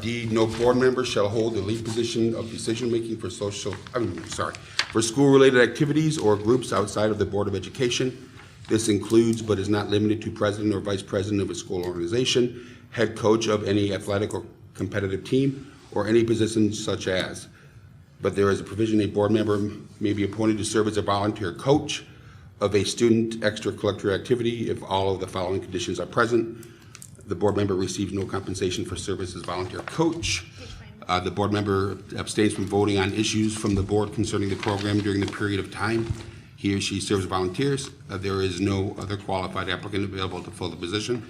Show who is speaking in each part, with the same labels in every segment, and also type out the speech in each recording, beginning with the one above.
Speaker 1: D, no board member shall hold the lead position of decision-making for social, I'm sorry, for school-related activities or groups outside of the Board of Education. This includes but is not limited to president or vice president of a school organization, head coach of any athletic or competitive team, or any position such as. But there is a provision, a board member may be appointed to serve as a volunteer coach of a student extracurricular activity if all of the following conditions are present. The board member receives no compensation for service as volunteer coach. Uh, The board member abstains from voting on issues from the board concerning the program during the period of time he or she serves volunteers. Uh, There is no other qualified applicant available to fill the position.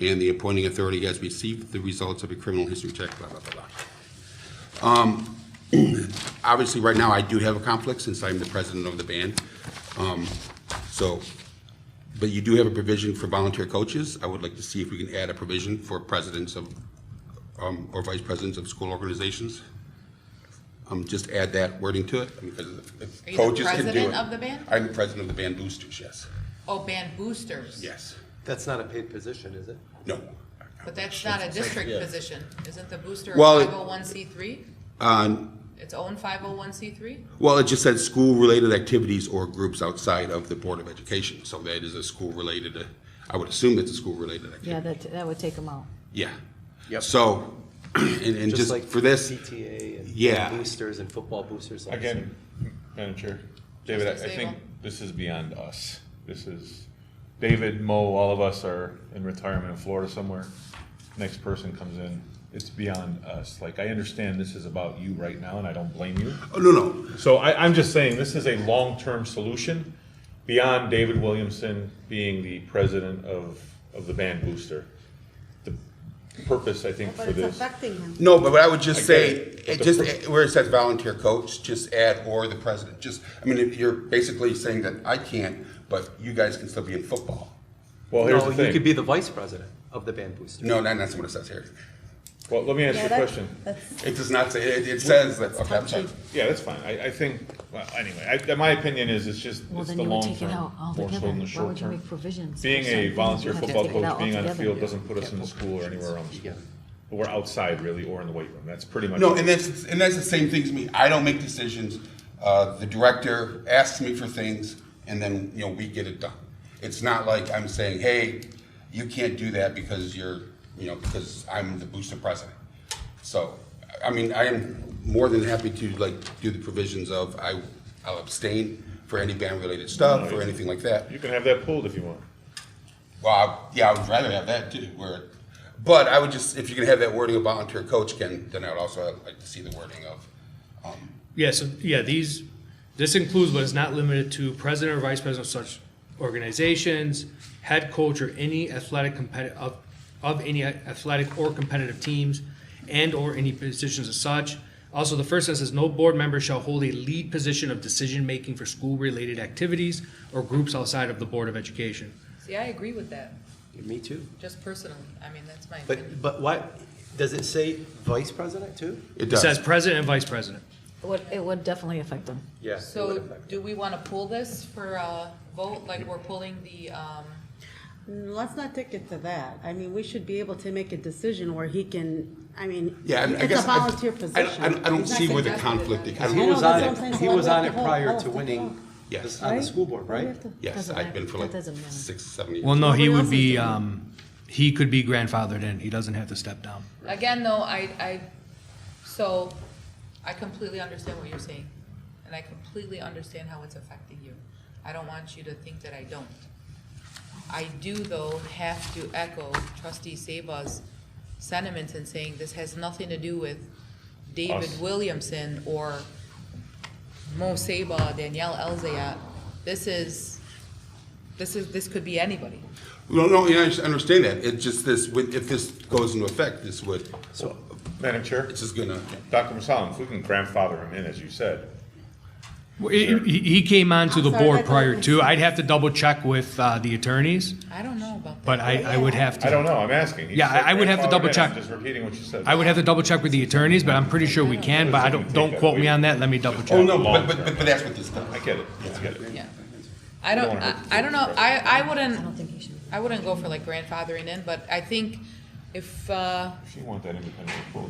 Speaker 1: And the appointing authority has received the results of a criminal history check, blah, blah, blah, blah. Obviously, right now, I do have a conflict since I'm the president of the band. Um, So, but you do have a provision for volunteer coaches. I would like to see if we can add a provision for presidents of, um, or vice presidents of school organizations. Um, Just add that wording to it, because if-
Speaker 2: Are
Speaker 1: if
Speaker 2: you the
Speaker 1: coaches can do it.
Speaker 2: president of the band?
Speaker 1: I'm the president of the band boosters, yes.
Speaker 2: Oh, band boosters.
Speaker 1: Yes.
Speaker 3: That's not a paid position, is it?
Speaker 1: No.
Speaker 2: But that's not a district position. Isn't the booster a
Speaker 1: Well, it- Uh,
Speaker 2: five oh one C three? Its own five oh one C three?
Speaker 1: Well, it just said school-related activities or groups outside of the Board of Education. So that is a school-related, uh, I would assume that's a school-related activity.
Speaker 4: Yeah, that, that would take them out.
Speaker 1: Yeah.
Speaker 3: Yep.
Speaker 1: So, and, and
Speaker 3: Just
Speaker 1: just
Speaker 3: like
Speaker 1: for this,
Speaker 3: CTA and
Speaker 1: Yeah.
Speaker 3: boosters and football boosters. like-
Speaker 5: Again, Madam Chair, David, I
Speaker 2: Trustee
Speaker 5: I think
Speaker 2: Sable.
Speaker 5: this is beyond us. This is, David, Mo, all of us are in retirement in Florida somewhere. Next person comes in, it's beyond us. Like, I understand this is about you right now, and I don't blame you.
Speaker 1: oh, no, no,
Speaker 5: So I, I'm just saying, this is a long-term solution beyond David Williamson being the president of, of the band booster. The purpose, I think,
Speaker 6: But
Speaker 5: for
Speaker 6: it's
Speaker 5: this.
Speaker 6: affecting him.
Speaker 1: no, but what I would just
Speaker 5: I get
Speaker 1: say,
Speaker 5: it, but
Speaker 1: it
Speaker 5: the
Speaker 1: just,
Speaker 5: pr-
Speaker 1: eh, where it says volunteer coach, just add or the president, just, I mean, if you're basically saying that I can't, but you guys can still be in football.
Speaker 5: Well, here's
Speaker 3: No,
Speaker 5: the
Speaker 3: you could be
Speaker 5: thing.
Speaker 3: the vice president of the band boosters.
Speaker 1: No, not, that's what it says here.
Speaker 5: Well, let me ask you a question.
Speaker 1: It does not say, it, it says that, okay, I'm sorry.
Speaker 5: Yeah, that's fine. I, I think, well, anyway, I, my opinion is it's just,
Speaker 4: Well,
Speaker 5: it's
Speaker 4: then
Speaker 5: the
Speaker 4: you would
Speaker 5: long
Speaker 4: take it
Speaker 5: term,
Speaker 4: out
Speaker 5: more so
Speaker 4: altogether.
Speaker 5: than the
Speaker 4: Why
Speaker 5: short
Speaker 4: would you
Speaker 5: term.
Speaker 4: make provisions? for
Speaker 5: Being a
Speaker 4: something?
Speaker 5: volunteer
Speaker 4: You have to
Speaker 5: football
Speaker 4: take it
Speaker 5: coach,
Speaker 4: out
Speaker 5: being on the
Speaker 4: altogether.
Speaker 5: field doesn't put us in the school or anywhere on the school.
Speaker 3: together.
Speaker 5: But we're outside really, or in the weight room. That's pretty much.
Speaker 1: No,
Speaker 5: it.
Speaker 1: and that's, and that's the same thing as me. I don't make decisions. Uh, the director asks me for things and then, you know, we get it done. It's not like I'm saying, hey, you can't do that because you're, you know, because I'm the booster president. So, I mean, I am more than happy to like do the provisions of I, I'll abstain for any band-related stuff or anything like that.
Speaker 5: You can have that pulled if you want.
Speaker 1: Well, I- yeah, I would rather have that too, where, but I would just, if you can have that wording of volunteer coach, Ken, then I would also like to see the wording of, um,
Speaker 7: Yeah, so, yeah, these, this includes but is not limited to president or vice president of such organizations, head coach or any athletic competitive, of, of any athletic or competitive teams, and/or any positions as such. Also, the first sentence says, no board member shall hold a lead position of decision-making for school-related activities or groups outside of the Board of Education.
Speaker 2: See, I agree with that,
Speaker 3: Me too.
Speaker 2: just personally. I mean, that's my opinion.
Speaker 3: But, but why, does it say vice president too?
Speaker 1: It
Speaker 7: It says
Speaker 1: does.
Speaker 7: president and vice president.
Speaker 4: It would, it would definitely affect them.
Speaker 3: Yeah. it would
Speaker 2: So
Speaker 3: affect-
Speaker 2: do we want to pull this for a vote, like we're pulling the, um,
Speaker 6: Mm, Let's not take it to that. I mean, we should be able to make a decision where he can, I mean,
Speaker 1: Yeah, I mean, I
Speaker 6: it's
Speaker 1: guess.
Speaker 6: a volunteer
Speaker 1: I- I don't-
Speaker 6: position.
Speaker 1: I don't, I don't
Speaker 2: He's not
Speaker 1: see where the
Speaker 2: suggesting
Speaker 1: conflict,
Speaker 2: that.
Speaker 1: I
Speaker 3: He
Speaker 1: don't,
Speaker 6: know,
Speaker 3: was
Speaker 6: that's
Speaker 3: on
Speaker 6: what I'm
Speaker 3: it,
Speaker 6: saying, so
Speaker 3: he
Speaker 6: why
Speaker 3: was
Speaker 6: do we
Speaker 3: on
Speaker 6: have
Speaker 3: it
Speaker 6: to hold-
Speaker 3: prior
Speaker 6: hold
Speaker 3: to
Speaker 6: the
Speaker 3: winning
Speaker 1: Yes.
Speaker 3: this on the school board, right?
Speaker 1: yes, I've been for like
Speaker 4: That doesn't matter.
Speaker 1: six, seven years.
Speaker 7: Well, no, he
Speaker 6: Nobody else
Speaker 7: would
Speaker 6: is
Speaker 7: be,
Speaker 6: doing it.
Speaker 7: um, he could be grandfathered in. He doesn't have to step down.
Speaker 2: again, though, I, I, so I completely understand what you're saying. And I completely understand how it's affecting you. I don't want you to think that I don't. I do, though, have to echo trustee Saba's sentiments in saying this has nothing to do with David
Speaker 5: Us.
Speaker 2: Williamson or Mo Saba, Danielle Elzayat. This is, this is, this could be anybody.
Speaker 1: No, no, yeah, I just understand that. It's just this, would- if this goes into effect, this would,
Speaker 3: So,
Speaker 5: Madam Chair,
Speaker 1: it's just gonna,
Speaker 5: Dr. Masalim, if we can grandfather him in, as you said,
Speaker 7: Well, He, he he came on to
Speaker 6: I'm
Speaker 7: the
Speaker 6: sorry,
Speaker 7: board
Speaker 6: that's
Speaker 7: prior
Speaker 6: okay.
Speaker 7: to, I'd have to double check with uh, the attorneys,
Speaker 2: I don't know about that.
Speaker 7: but I, I would have
Speaker 5: I
Speaker 7: to,
Speaker 5: don't know, I'm asking. He
Speaker 7: Yeah,
Speaker 5: said
Speaker 7: I- I would have to
Speaker 5: grandfathered
Speaker 7: double
Speaker 5: in. I'm
Speaker 7: check.
Speaker 5: Just repeating what you said.
Speaker 7: I would have to double check with the attorneys, but I'm pretty sure we can, but I don't, don't quote me on that, let me double
Speaker 1: oh,
Speaker 7: check.
Speaker 1: no, but, but, but but that's what this does.
Speaker 5: I get it, I get it.
Speaker 2: Yeah. I don't,
Speaker 5: wanna
Speaker 2: I,
Speaker 5: hurt the
Speaker 2: I don't know, I, I wouldn't,
Speaker 4: I don't think he should.
Speaker 2: I wouldn't go for like grandfathering in, but I think if, uh,
Speaker 5: If you want that independent approval.